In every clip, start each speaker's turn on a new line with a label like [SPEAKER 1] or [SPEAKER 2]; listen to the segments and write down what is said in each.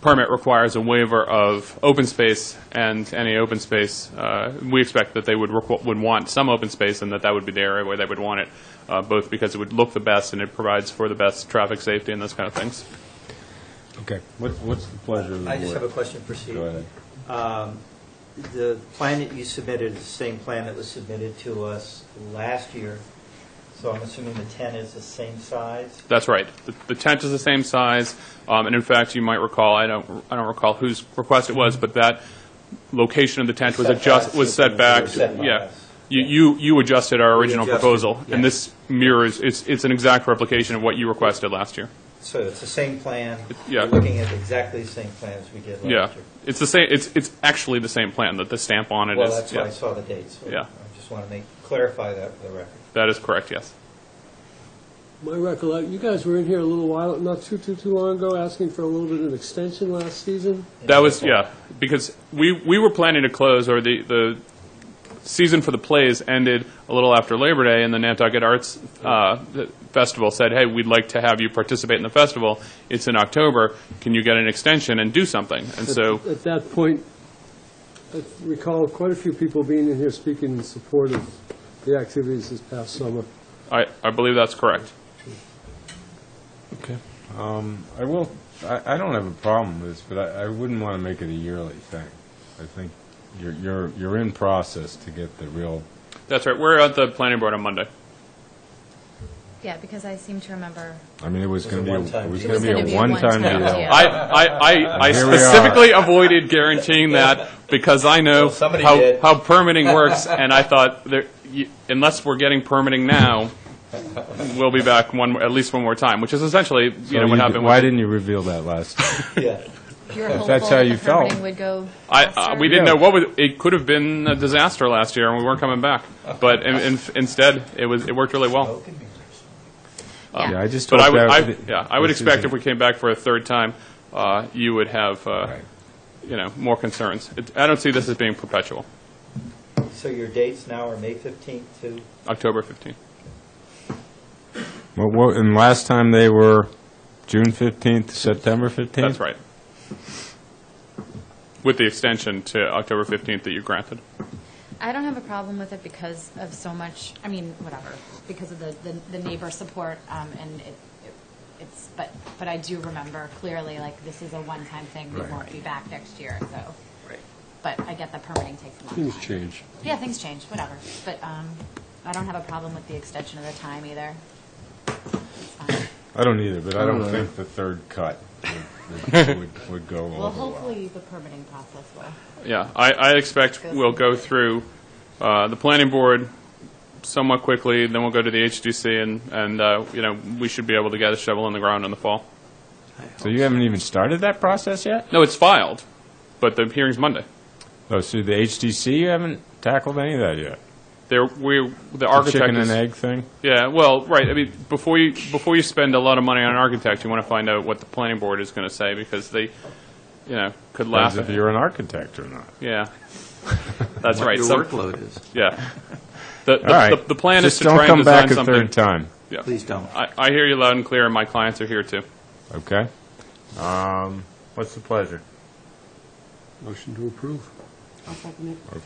[SPEAKER 1] permit requires a waiver of open space and any open space, uh, we expect that they would, requ- would want some open space and that that would be the area where they would want it, uh, both because it would look the best and it provides for the best traffic safety and those kind of things.
[SPEAKER 2] Okay, what, what's the pleasure of the board?
[SPEAKER 3] I just have a question for Steve.
[SPEAKER 2] Go ahead.
[SPEAKER 3] Um, The plan that you submitted is the same plan that was submitted to us last year, so I'm assuming the tent is the same size?
[SPEAKER 1] That's right. The- The tent is the same size, um, and in fact, you might recall, I don't, I don't recall whose request it was, but that location of the tent was adjust,
[SPEAKER 3] Setbacks.
[SPEAKER 1] was set back.
[SPEAKER 3] Setbacks.
[SPEAKER 1] Yeah. You, you you adjusted our original
[SPEAKER 3] adjusted,
[SPEAKER 1] proposal, and
[SPEAKER 3] yeah.
[SPEAKER 1] this mirrors, it's, it's an exact replication of what you requested last year.
[SPEAKER 3] So it's the same plan?
[SPEAKER 1] yeah.
[SPEAKER 3] We're looking at exactly the same plan as we did last year?
[SPEAKER 1] Yeah. It's the same, it's, it's actually the same plan, that the stamp on it is.
[SPEAKER 3] Well, that's
[SPEAKER 1] yeah.
[SPEAKER 3] why I saw the dates. so
[SPEAKER 1] Yeah.
[SPEAKER 3] I just want to make, clarify that for the record.
[SPEAKER 1] That is correct, yes.
[SPEAKER 4] My recollect, you guys were in here a little while, not too, too, too long ago, asking for a little bit of an extension last season.
[SPEAKER 1] That was, yeah, because we, we were planning to close, or the, the season for the plays ended a little after Labor Day, and the Nantucket Arts uh, the Festival said, hey, we'd like to have you participate in the festival. It's in October. Can you get an extension and do something? And so,
[SPEAKER 4] At that point, I recall quite a few people being in here speaking in support of the activities this past summer.
[SPEAKER 1] I, I believe that's correct.
[SPEAKER 2] I will, I, I don't have a problem with this, but I, I wouldn't want to make it a yearly thing. I think you're, you're, you're in process to get the real,
[SPEAKER 1] That's right. We're at the planning board on Monday.
[SPEAKER 5] Yeah, because I seem to remember.
[SPEAKER 2] I mean, it was
[SPEAKER 3] It was
[SPEAKER 2] going to
[SPEAKER 3] a
[SPEAKER 2] be, a-
[SPEAKER 3] one-time
[SPEAKER 2] it was
[SPEAKER 3] deal.
[SPEAKER 2] going to be a one-time deal.
[SPEAKER 5] deal.
[SPEAKER 1] I, I, I, I
[SPEAKER 2] Here we are.
[SPEAKER 1] specifically avoided guaranteeing that because I know
[SPEAKER 3] Well, somebody
[SPEAKER 1] how,
[SPEAKER 3] did.
[SPEAKER 1] how permitting works, and I thought, there- you- unless we're getting permitting now, we'll be back one, at least one more time, which is essentially, you know,
[SPEAKER 2] So
[SPEAKER 1] what
[SPEAKER 2] you-
[SPEAKER 1] happened.
[SPEAKER 2] Why
[SPEAKER 1] with-
[SPEAKER 2] didn't you reveal that last time?
[SPEAKER 3] Yeah.
[SPEAKER 5] You were
[SPEAKER 2] If
[SPEAKER 5] hopeful
[SPEAKER 2] that's how
[SPEAKER 5] that
[SPEAKER 2] you
[SPEAKER 5] the permitting
[SPEAKER 2] felt.
[SPEAKER 5] would go
[SPEAKER 1] I, uh,
[SPEAKER 5] faster.
[SPEAKER 1] we didn't
[SPEAKER 2] Yeah.
[SPEAKER 1] know what would, it could have been a disaster last year, and we weren't coming back. But in, in, instead, it was, it worked really
[SPEAKER 3] Oh,
[SPEAKER 1] well. uh,
[SPEAKER 5] Yeah.
[SPEAKER 2] Yeah, I just
[SPEAKER 1] But I
[SPEAKER 2] hope
[SPEAKER 1] would,
[SPEAKER 2] that.
[SPEAKER 1] I, yeah, I would
[SPEAKER 2] this
[SPEAKER 1] expect if
[SPEAKER 2] isn't-
[SPEAKER 1] we came back for a third time, uh, you would have, uh,
[SPEAKER 2] Right.
[SPEAKER 1] you know, more concerns. It- I don't see this as being perpetual,
[SPEAKER 3] So your dates now are May 15th to,
[SPEAKER 1] October 15th.
[SPEAKER 2] Well, well, and last time they were June 15th, September 15th?
[SPEAKER 1] That's right. With the extension to October 15th that you granted.
[SPEAKER 5] I don't have a problem with it because of so much, I mean, whatever, because of the, the- the neighbor support, um, and it, it- it's, but, but I do remember clearly, like, this is a one-time thing, we
[SPEAKER 2] Right.
[SPEAKER 5] won't be back next year, so. But I get that permitting takes a long time.
[SPEAKER 4] Things change.
[SPEAKER 5] Yeah, things change, whatever, but, um, I don't have a problem with the extension of the time either. It's fine.
[SPEAKER 2] I don't either, but I
[SPEAKER 1] Uh,
[SPEAKER 2] don't think the third cut would- would, would- would go over well.
[SPEAKER 5] Well, hopefully, the permitting process will.
[SPEAKER 1] Yeah, I, I expect
[SPEAKER 5] Good.
[SPEAKER 1] we'll go through uh, the planning board somewhat quickly, then we'll go to the HDC, and, and, uh, you know, we should be able to get a shovel in the ground in the fall.
[SPEAKER 2] So you haven't even started that process yet?
[SPEAKER 1] No, it's filed, but the hearing's Monday.
[SPEAKER 2] Oh, so the HDC, you haven't tackled any of that yet?
[SPEAKER 1] There, we, the
[SPEAKER 2] The
[SPEAKER 1] architect
[SPEAKER 2] chicken and
[SPEAKER 1] is...
[SPEAKER 2] egg thing?
[SPEAKER 1] Yeah, well, right, I mean, before you, before you spend a lot of money on an architect, you want to find out what the planning board is going to say, because they, you know, could laugh
[SPEAKER 2] Depends
[SPEAKER 1] at
[SPEAKER 2] if you're an architect or not.
[SPEAKER 1] Yeah, that's right.
[SPEAKER 6] Your
[SPEAKER 1] Some-
[SPEAKER 6] workload is,
[SPEAKER 1] Yeah. The, the,
[SPEAKER 2] All right.
[SPEAKER 1] the, the plan is
[SPEAKER 2] Just
[SPEAKER 1] to try and design
[SPEAKER 2] don't come back a
[SPEAKER 1] something.
[SPEAKER 2] third time,
[SPEAKER 1] Yeah.
[SPEAKER 6] please don't.
[SPEAKER 1] I, I hear you loud and clear, and my clients are here too.
[SPEAKER 2] okay? Um, What's the pleasure?
[SPEAKER 4] Motion to approve.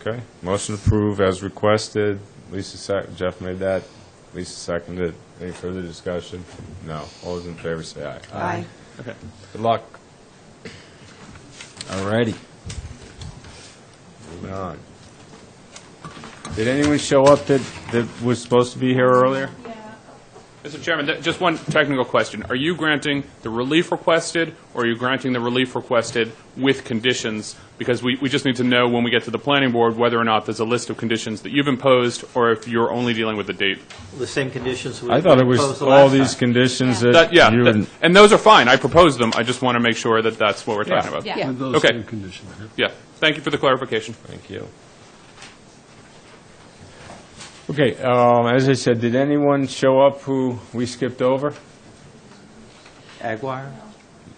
[SPEAKER 2] Okay, motion to approve as requested. Lisa, sec- Jeff made that. Lisa seconded. Any further discussion? No. All those in favor say aye.
[SPEAKER 6] Aye.
[SPEAKER 2] Good luck. All righty. Moving on. Did anyone show up that, that was supposed to be here earlier?
[SPEAKER 1] Mr. Chairman, th- just one technical question. Are you granting the relief requested, or are you granting the relief requested with conditions? Because we, we just need to know when we get to the planning board whether or not there's a list of conditions that you've imposed, or if you're only dealing with the date.
[SPEAKER 3] the same conditions we
[SPEAKER 2] I thought it
[SPEAKER 3] proposed
[SPEAKER 2] was
[SPEAKER 3] the
[SPEAKER 2] all
[SPEAKER 3] last
[SPEAKER 2] these
[SPEAKER 3] time.
[SPEAKER 2] conditions that
[SPEAKER 1] That, yeah,
[SPEAKER 2] you
[SPEAKER 1] that-
[SPEAKER 2] and...
[SPEAKER 1] and those are fine. I proposed them. I just want to make sure that that's what we're talking about.
[SPEAKER 5] Yeah.
[SPEAKER 4] With those
[SPEAKER 1] Okay.
[SPEAKER 4] same conditions.
[SPEAKER 1] Yeah. Thank you for the clarification.
[SPEAKER 2] Thank you. Okay, um, as I said, did anyone show up who we skipped over?
[SPEAKER 6] Aguirre?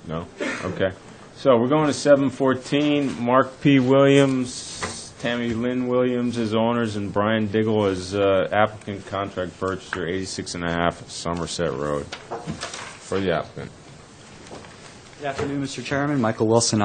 [SPEAKER 2] No. Okay. So we're going to 714, Mark P. Williams, Tammy Lynn Williams as owners, and Brian Diggle as uh, applicant contract purchaser, 86 and a half Somerset Road, for the applicant.
[SPEAKER 3] Good afternoon, Mr. Chairman. Michael Wilson